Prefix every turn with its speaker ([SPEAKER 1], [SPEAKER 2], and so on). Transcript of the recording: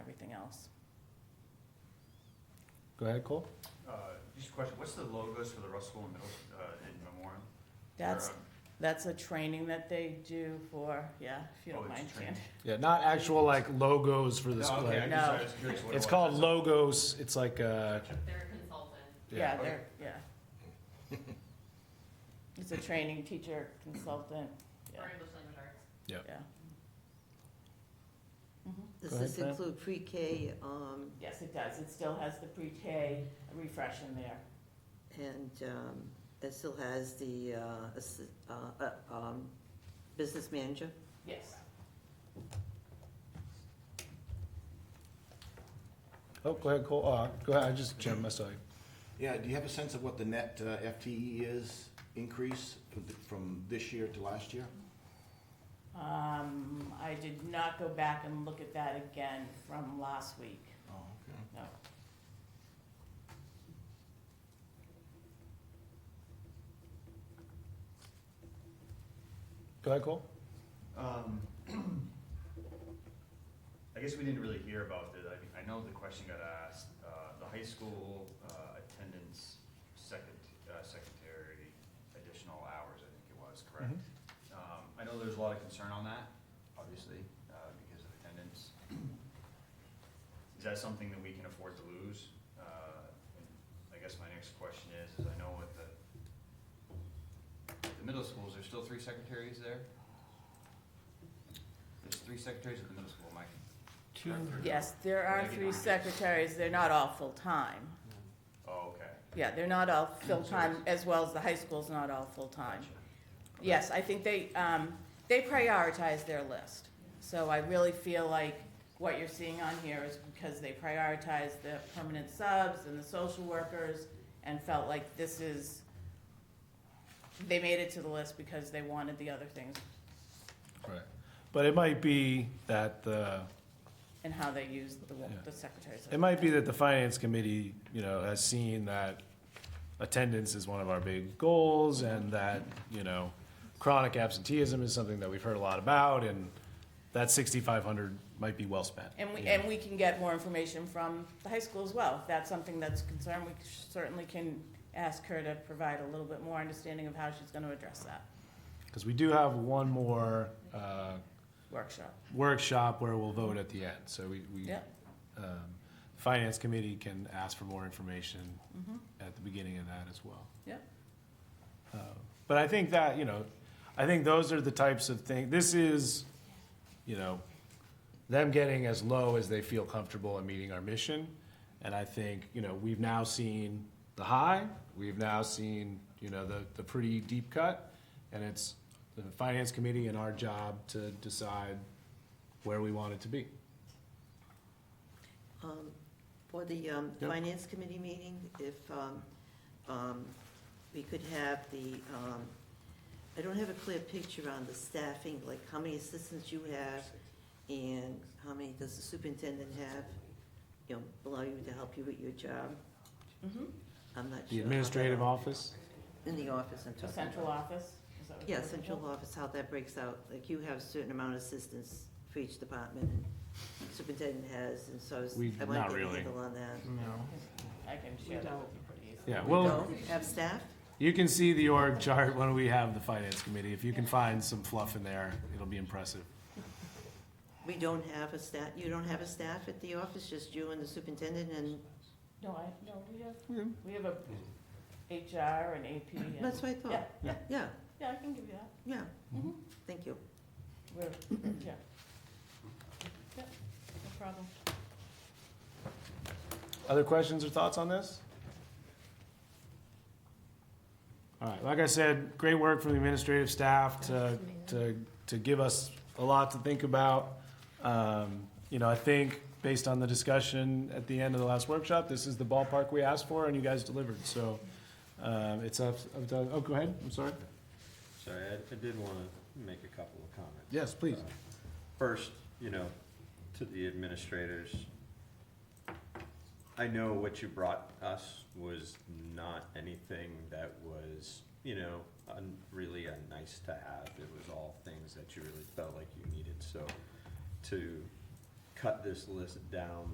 [SPEAKER 1] else.
[SPEAKER 2] Go ahead, Cole.
[SPEAKER 3] Uh, Just a question, what's the logos for the Russell and Middle, uh, and Memorial?
[SPEAKER 1] That's,
[SPEAKER 3] Or, uh,
[SPEAKER 1] that's a training that they do for, yeah, if you
[SPEAKER 3] Oh,
[SPEAKER 1] don't
[SPEAKER 3] it's
[SPEAKER 1] mind,
[SPEAKER 3] a
[SPEAKER 1] Jan.
[SPEAKER 3] training.
[SPEAKER 2] Yeah, not actual like logos for this.
[SPEAKER 3] No, okay, I
[SPEAKER 2] like-
[SPEAKER 1] No.
[SPEAKER 3] just- I was curious what it
[SPEAKER 2] It's
[SPEAKER 3] was,
[SPEAKER 2] called
[SPEAKER 3] that's all.
[SPEAKER 2] logos. It's like uh,
[SPEAKER 4] They're a consultant.
[SPEAKER 1] Yeah,
[SPEAKER 3] okay.
[SPEAKER 1] they're, yeah. It's a training teacher consultant, yeah,
[SPEAKER 4] for English language arts.
[SPEAKER 1] yeah. Mhm.
[SPEAKER 5] Does
[SPEAKER 2] Go
[SPEAKER 5] this
[SPEAKER 2] ahead, Fran.
[SPEAKER 5] include pre-K, um,
[SPEAKER 1] Yes, it does. It still has the pre-K refresh in there.
[SPEAKER 5] and, um, it still has the, uh, assi- uh, uh, um, business manager?
[SPEAKER 1] Yes.
[SPEAKER 2] oh, go ahead, Cole. Oh, go ahead. I just Jim, I saw you.
[SPEAKER 6] Yeah, do you have a sense of what the net uh, FTE is increase from th- from this year to last year?
[SPEAKER 1] Um, I did not go back and look at that again from last week,
[SPEAKER 6] Oh, okay.
[SPEAKER 1] no.
[SPEAKER 2] Go ahead, Cole.
[SPEAKER 3] Um, I guess we didn't really hear about it, I, mean, I know the question got asked, uh, the high school, uh, attendance second, uh, secretary additional hours, I think it was, correct? Um, I know there's a lot of concern on that, obviously, uh, because of attendance. Is that something that we can afford to lose? Uh, and I guess my next question is, is I know with the, the middle schools, there's still three secretaries there? There's three secretaries at the middle school, Mike. Two.
[SPEAKER 1] Yes, there are three secretaries. They're not all full-time.
[SPEAKER 3] Oh, okay.
[SPEAKER 1] Yeah, they're not all full-time, as well as the high school's not all full-time.
[SPEAKER 3] Gotcha.
[SPEAKER 1] Yes, I think they, um, they prioritize their list. So I really feel like what you're seeing on here is because they prioritize the permanent subs and the social workers and felt like this is, they made it to the list because they wanted the other things
[SPEAKER 2] Right. But it might be that the
[SPEAKER 1] and how they used the, wo-
[SPEAKER 2] Yeah.
[SPEAKER 1] the secretaries.
[SPEAKER 2] it might be that the finance committee, you know, has seen that attendance is one of our big goals, and that you know, chronic absenteeism is something that we've heard a lot about, and that sixty-five hundred might be well spent.
[SPEAKER 1] And we,
[SPEAKER 2] you know?
[SPEAKER 1] and we can get more information from the high school as well. If that's something that's concerned, we certainly can ask her to provide a little bit more understanding of how she's gonna address that
[SPEAKER 2] Because we do have one more uh,
[SPEAKER 1] workshop.
[SPEAKER 2] workshop where we'll vote at the end, so we, we,
[SPEAKER 1] Yeah,
[SPEAKER 2] um, Finance Committee can ask for more information
[SPEAKER 1] mhm,
[SPEAKER 2] at the beginning of that as well.
[SPEAKER 1] yeah,
[SPEAKER 2] Uh, But I think that, you know, I think those are the types of things, this is, you know, them getting as low as they feel comfortable in meeting our mission. And I think, you know, we've now seen the high, we've now seen, you know, the, the pretty deep cut. And it's the Finance Committee and our job to decide where we want it to be.
[SPEAKER 5] Um, For the um,
[SPEAKER 2] Yep.
[SPEAKER 5] Finance Committee meeting, if um, um, we could have the, um, I don't have a clear picture on the staffing, like how many assistants you have and how many does the superintendent have, you know, allow you to help you with your job?
[SPEAKER 1] mhm.
[SPEAKER 5] I'm not sure.
[SPEAKER 2] The administrative office?
[SPEAKER 5] In the office, I'm talking
[SPEAKER 1] The
[SPEAKER 5] about.
[SPEAKER 1] central office? is that what
[SPEAKER 5] Yeah,
[SPEAKER 1] you're looking
[SPEAKER 5] central
[SPEAKER 1] for?
[SPEAKER 5] office, how that breaks out, like you have a certain amount of assistants for each department, and superintendent has, and so I was,
[SPEAKER 2] We-
[SPEAKER 5] I want
[SPEAKER 2] not
[SPEAKER 5] to get a
[SPEAKER 2] really.
[SPEAKER 5] handle on that.
[SPEAKER 1] I can share that with you pretty easily.
[SPEAKER 2] Yeah,
[SPEAKER 5] We
[SPEAKER 2] well,
[SPEAKER 5] don't have staff?
[SPEAKER 2] you can see the org chart when we have the Finance Committee. If you can find some fluff in there, it'll be impressive.
[SPEAKER 5] We don't have a staff, you don't have a staff at the office, just you and the superintendent, and
[SPEAKER 1] No, I, no, we have, we have a HR and AP and.
[SPEAKER 5] that's what I
[SPEAKER 1] Yeah,
[SPEAKER 5] thought.
[SPEAKER 1] yeah,
[SPEAKER 5] Yeah,
[SPEAKER 1] yeah, I can give you that.
[SPEAKER 5] yeah,
[SPEAKER 1] Mhm.
[SPEAKER 5] thank you.
[SPEAKER 1] We're, yeah. Yeah, no problem.
[SPEAKER 2] Other questions or thoughts on this? All right, like I said, great work from the administrative staff to, to, to give us a lot to think about. Um, you know, I think based on the discussion at the end of the last workshop, this is the ballpark we asked for and you guys delivered, so, um, it's up, up to- oh, go ahead, I'm sorry.
[SPEAKER 7] Sorry, I, I did want to make a couple of comments.
[SPEAKER 2] Yes, please.
[SPEAKER 7] Uh, First, you know, to the administrators, I know what you brought us was not anything that was, you know, un, really a nice to have. It was all things that you really felt like you needed, so to cut this list down